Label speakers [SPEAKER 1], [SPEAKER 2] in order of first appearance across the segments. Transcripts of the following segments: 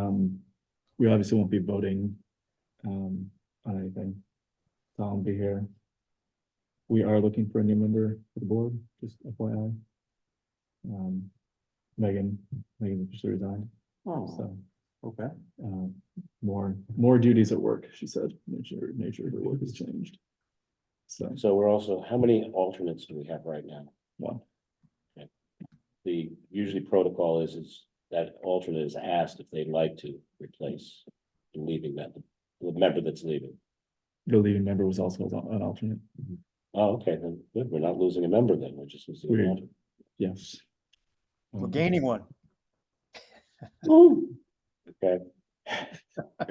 [SPEAKER 1] Um, we obviously won't be voting um on anything. So I'll be here. We are looking for a new member for the board, just FYI. Um, Megan, Megan just resigned, so
[SPEAKER 2] okay.
[SPEAKER 1] um more, more duties at work, she said, nature, nature of her work has changed. So,
[SPEAKER 2] So we're also, how many alternates do we have right now?
[SPEAKER 1] well,
[SPEAKER 2] The usually protocol is, is that alternate is asked if they'd like to replace the leaving that, the member that's leaving.
[SPEAKER 1] the leading member was also an alternate,
[SPEAKER 2] Oh, okay, then good, we're not losing a member then, we're just losing an
[SPEAKER 1] Weird.
[SPEAKER 2] alternate.
[SPEAKER 1] yes.
[SPEAKER 3] We're
[SPEAKER 1] Um,
[SPEAKER 3] gaining one.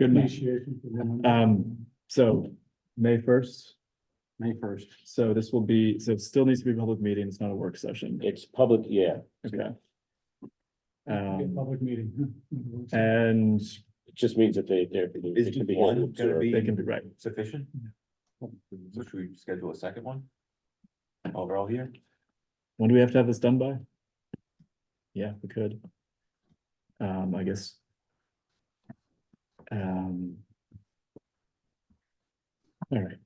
[SPEAKER 1] Good match. Um, so May first,
[SPEAKER 4] May first.
[SPEAKER 1] so this will be, so it still needs to be a public meeting, it's not a work session.
[SPEAKER 2] It's public, yeah,
[SPEAKER 1] Okay. Um,
[SPEAKER 4] Public meeting.
[SPEAKER 1] and
[SPEAKER 2] it just means that they, they're. they
[SPEAKER 5] Is
[SPEAKER 2] can be
[SPEAKER 5] one
[SPEAKER 2] held to
[SPEAKER 5] gonna
[SPEAKER 2] observe.
[SPEAKER 5] be-
[SPEAKER 1] they can be right.
[SPEAKER 5] Sufficient? So should we schedule a second one? While we're all here?
[SPEAKER 1] When do we have to have this done by? Yeah, we could. Um, I guess. Um. All right.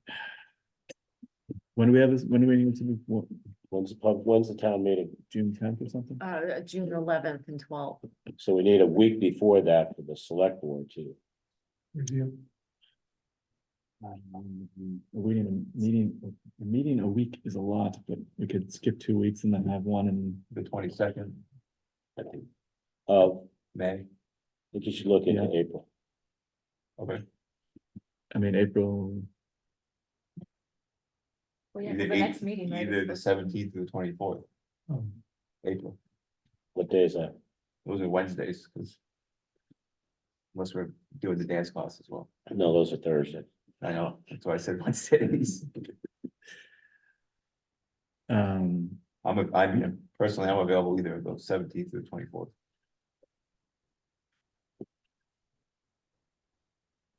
[SPEAKER 1] When do we have this, when do we need to be, what,
[SPEAKER 2] When's the pub, when's the town meeting?
[SPEAKER 1] June tenth or something?
[SPEAKER 6] Uh, June eleventh and twelfth.
[SPEAKER 2] So we need a week before that for the select board to,
[SPEAKER 1] Um, We need a meeting, a meeting a week is a lot, but we could skip two weeks and then have one and
[SPEAKER 5] The twenty-second,
[SPEAKER 2] I think. Uh, I
[SPEAKER 5] May?
[SPEAKER 2] think you should look into April.
[SPEAKER 5] Okay.
[SPEAKER 1] I mean, April,
[SPEAKER 6] Well,
[SPEAKER 5] Either eight- Either the seventeenth or the twenty-fourth. April,
[SPEAKER 2] What day is that?
[SPEAKER 5] those are Wednesdays, because. Unless we're doing the dance class as well.
[SPEAKER 2] No, those are Thursday.
[SPEAKER 5] I know, that's why I said Wednesdays.
[SPEAKER 1] um,
[SPEAKER 5] I'm, a- I'm, here. personally, I'm available either of those seventeenth or twenty-fourth.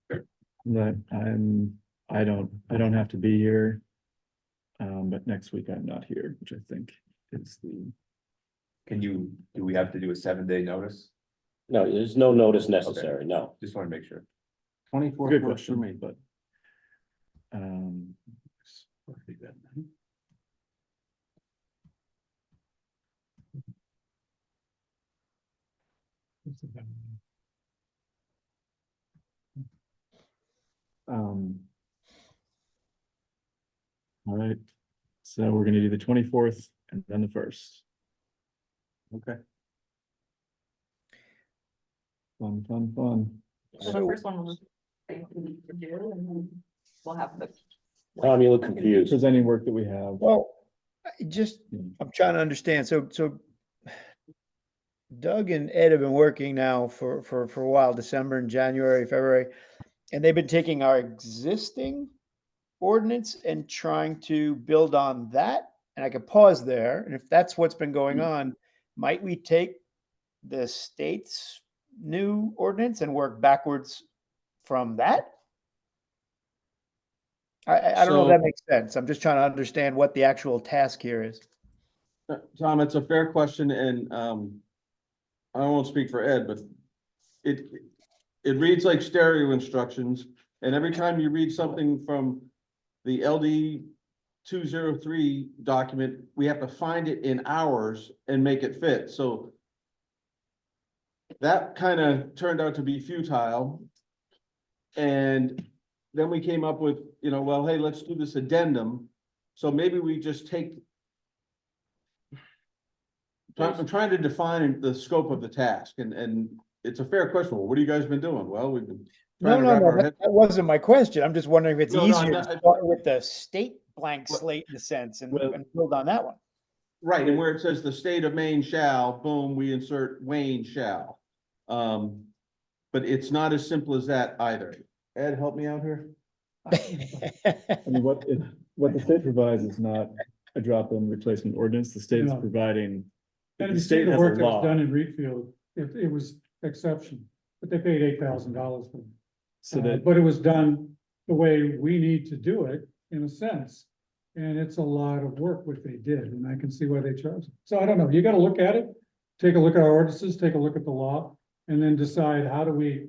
[SPEAKER 1] but I'm, I don't, I don't have to be here. Um, but next week I'm not here, which I think is the,
[SPEAKER 5] Can you, do we have to do a seven-day notice?
[SPEAKER 2] No, there's no notice necessary, no.
[SPEAKER 5] Just want to make sure.
[SPEAKER 1] it's a good
[SPEAKER 4] Twenty-four works for me.
[SPEAKER 1] question, but. Um, um. All right, so we're gonna do the twenty-fourth and then the first.
[SPEAKER 4] Okay.
[SPEAKER 1] Fun, fun, fun.
[SPEAKER 6] The first one was. We'll have the.
[SPEAKER 2] Tom, you look confused.
[SPEAKER 1] Presenting work that we have.
[SPEAKER 3] Well, I just,
[SPEAKER 1] Hmm.
[SPEAKER 3] I'm trying to understand. So, so Doug and Ed have been working now for, for, for a while, December and January, February. And they've been taking our existing ordinance and trying to build on that. And I could pause there. And if that's what's been going
[SPEAKER 4] Mm.
[SPEAKER 3] on, might we take the state's new ordinance and work backwards from that? I, I I don't know if
[SPEAKER 4] So-
[SPEAKER 3] that makes sense. I'm just trying to understand what the actual task here is.
[SPEAKER 4] Uh, Tom, it's a fair question and, um, I won't speak for Ed, but it, it reads like stereo instructions. And every time you read something from the LD two zero three document, we have to find it in ours and make it fit, so that kind of turned out to be futile. And then we came up with, you know, well, hey, let's do this addendum. So maybe we just take Try- I'm trying to define the scope of the task and, and it's a fair question. Well, What have you guys been doing? Well, we've been.
[SPEAKER 3] No,
[SPEAKER 4] trying to
[SPEAKER 3] no,
[SPEAKER 4] wrap
[SPEAKER 3] no,
[SPEAKER 4] our
[SPEAKER 3] that
[SPEAKER 4] head-
[SPEAKER 3] that wasn't my question. I'm just wondering if it's
[SPEAKER 4] No, no, I'm
[SPEAKER 3] easier to
[SPEAKER 4] not- I-
[SPEAKER 3] start with the state blank
[SPEAKER 4] Well-
[SPEAKER 3] slate in a sense and
[SPEAKER 1] Well-
[SPEAKER 3] and build on that one.
[SPEAKER 4] Right, and where it says the state of Maine shall, boom, we insert Wayne shall. Um, but it's not as simple as that either. Ed, help me out here.
[SPEAKER 1] I mean, what, it- what the state provides is not a drop-in replacement ordinance, the state is
[SPEAKER 7] No.
[SPEAKER 1] providing.
[SPEAKER 7] And
[SPEAKER 1] the
[SPEAKER 7] if you see
[SPEAKER 1] state
[SPEAKER 7] the
[SPEAKER 1] has a
[SPEAKER 7] work that was
[SPEAKER 1] law,
[SPEAKER 7] done in Reedfield, it, it was exception, but they paid eight thousand dollars for it.
[SPEAKER 1] so
[SPEAKER 7] Uh,
[SPEAKER 1] that,
[SPEAKER 7] But it was done the way we need to do it, in a sense. And it's a lot of work what they did, and I can see why they charged. So I don't know, you gotta look at it, take a look at our ordinances, take a look at the law, and then decide how do we